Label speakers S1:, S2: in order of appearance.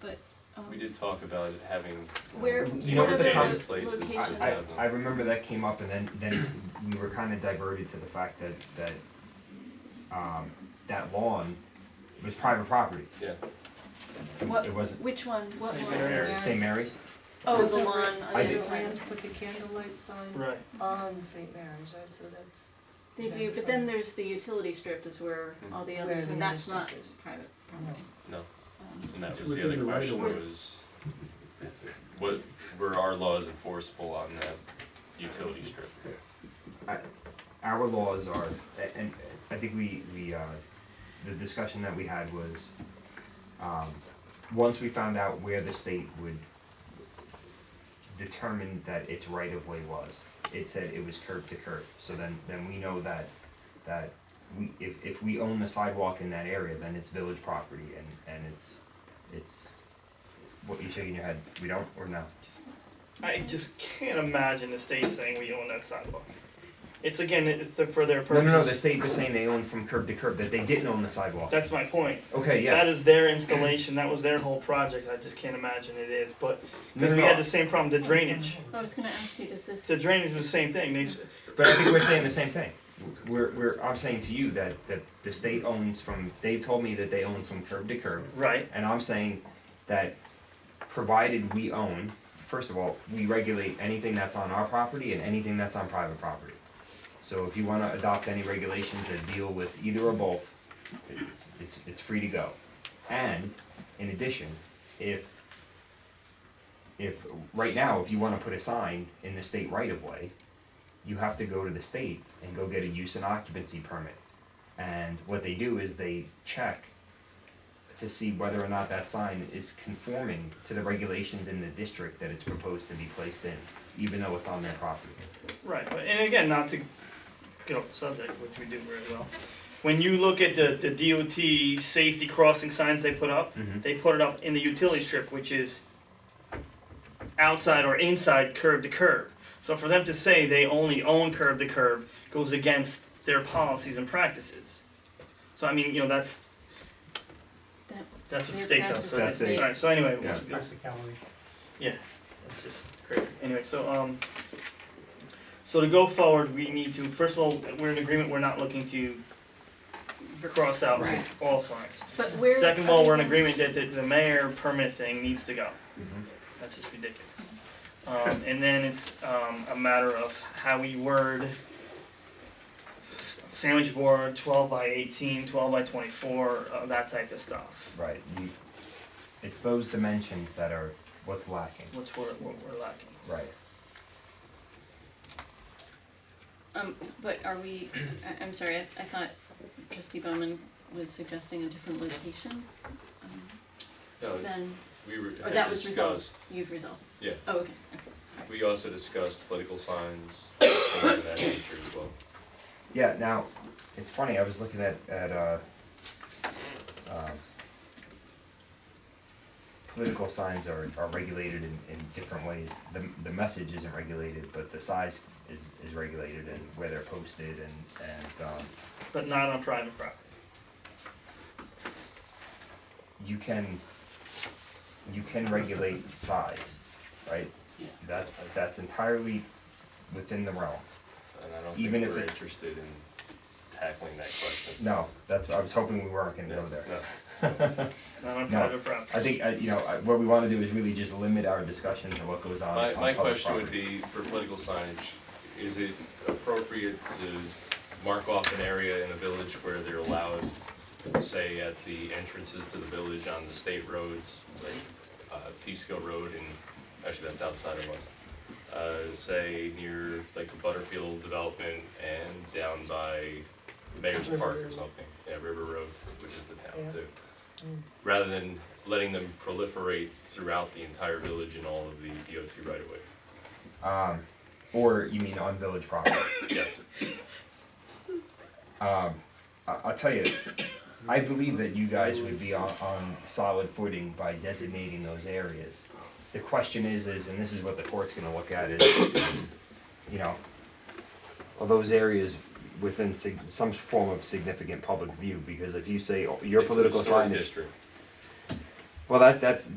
S1: but, um,
S2: We did talk about having.
S1: where,
S2: You
S1: what
S2: know
S1: are
S2: what
S1: the
S2: the
S1: other
S2: conference
S1: locations?
S2: place is?
S3: I, I,
S2: Yeah.
S3: I remember that came up and then, then we were kinda diverted to the fact that, that, um, that lawn was private property.
S2: Yeah,
S1: What-
S3: It wasn't,
S1: Which one, what one?
S4: St. Mary's.
S3: St. Mary's,
S1: Oh, the lawn on the
S3: I
S1: other
S3: did-
S1: side.
S5: With the candlelight sign
S4: Right.
S5: on St. Mary's, right, so that's.
S1: They do, but then there's the utility strip is where all the
S5: Where
S1: others,
S5: the
S1: and
S5: other
S1: that's
S5: stuff
S1: not
S5: is.
S1: private property.
S2: no,
S1: Um,
S2: and
S4: It's
S2: that was the
S4: within
S2: other
S4: the right
S2: question
S4: of way.
S2: was, what, were our laws enforceable on that utility strip?
S3: I, our laws are, a- and I think we, we, uh, the discussion that we had was, um, once we found out where the state would determine that its right of way was, it said it was curb to curb, so then, then we know that, that we, if, if we own the sidewalk in that area, then it's village property and, and it's, it's, what you shaking your head, we don't, or no?
S6: I just can't imagine the state saying we own that sidewalk. It's again, it's the, for their
S3: No,
S6: purpose.
S3: no, no, the state was saying they own from curb to curb, that they didn't own the sidewalk.
S6: That's my point.
S3: Okay, yeah.
S6: That is their installation. That was their whole project. I just can't imagine it is. But
S3: No,
S6: because
S3: no,
S6: we
S3: no.
S6: had the same problem, the drainage.
S1: I was gonna ask you, does this,
S6: The drainage was the same thing. They s-
S3: But I think we're saying the same thing. We're, we're, I'm saying to you that, that the state owns from, they told me that they own from curb to curb.
S6: right.
S3: And I'm saying that provided we own, first of all, we regulate anything that's on our property and anything that's on private property. So if you wanna adopt any regulations that deal with either or both, it's, it's, it's free to go. And in addition, if, if, right now, if you wanna put a sign in the state right of way, you have to go to the state and go get a use and occupancy permit. And what they do is they check to see whether or not that sign is conforming to the regulations in the district that it's proposed to be placed in, even though it's on their property.
S6: Right, but and again, not to get off the subject, which we do very well. When you look at the, the DOT safety crossing signs they put up,
S3: Mhm.
S6: they put it up in the utility strip, which is outside or inside curb to curb. So for them to say they only own curb to curb goes against their policies and practices. So I mean, you know, that's
S1: that,
S6: that's what the
S1: Their
S6: state does. So
S3: practices. That's it.
S6: Alright, so anyway,
S3: Yeah.
S6: we'll- yeah, that's just great. Anyway, so, um, so to go forward, we need to, first of all, we're in agreement, we're not looking to cross out
S1: Right.
S6: all signs.
S1: but where?
S6: Second of all, we're in agreement that the, the mayor permit thing needs to go.
S3: Mhm.
S6: That's just ridiculous. Um, and then it's, um, a matter of how we word s- sandwich board, twelve by eighteen, twelve by twenty-four, uh, that type of stuff,
S3: Right. You, it's those dimensions that are what's lacking.
S6: which we're, we're we're lacking.
S3: Right.
S1: Um, but are we, I, I'm sorry, I, I thought trustee Bowman was suggesting a different location, um,
S2: No,
S1: than,
S2: we were,
S1: or
S2: had
S1: that was resolved,
S2: discussed,
S1: you've resolved?
S2: Yeah.
S1: Oh, okay,
S2: we also discussed political signs, things of that nature as well.
S3: Yeah, now, it's funny, I was looking at, at, uh, um, political signs are, are regulated in, in different ways. The, the message isn't regulated, but the size is, is regulated and where they're posted and, and, um,
S6: but not on private property.
S3: you can, you can regulate size, right?
S1: Yeah.
S3: That's, that's entirely within the realm.
S2: And I don't
S3: Even
S2: think
S3: if
S2: we're
S3: it's-
S2: interested in tackling that question.
S3: No, that's, I was hoping we weren't gonna
S2: Yeah,
S3: go there.
S2: no.
S6: Not on
S3: No,
S6: private property.
S3: I think, uh, you know, I- what we wanna do is really just limit our discussion to what goes on on
S2: My,
S3: public
S2: my question would be,
S3: property.
S2: for political signage, is it appropriate to mark off an area in a village where they're allowed, say, at the entrances to the village on the state roads, like, uh, Peekskill Road and, actually, that's outside of us. Uh, say, near, like, the Butterfield development and down by Mayor's Park or something, yeah, River Road, which is the town too rather than letting them proliferate throughout the entire village and all of the DOT right of ways.
S3: Um, or you mean on village property?
S2: Yes,
S3: Um, I, I'll tell you, I believe that you guys would be on, on solid footing by designating those areas. The question is, is, and this is what the court's gonna look at, is, is, you know, are those areas within sig- some form of significant public view? Because if you say oh, your
S2: It's a
S3: political
S2: historic
S3: sign is,
S2: district.
S3: well, that, that's,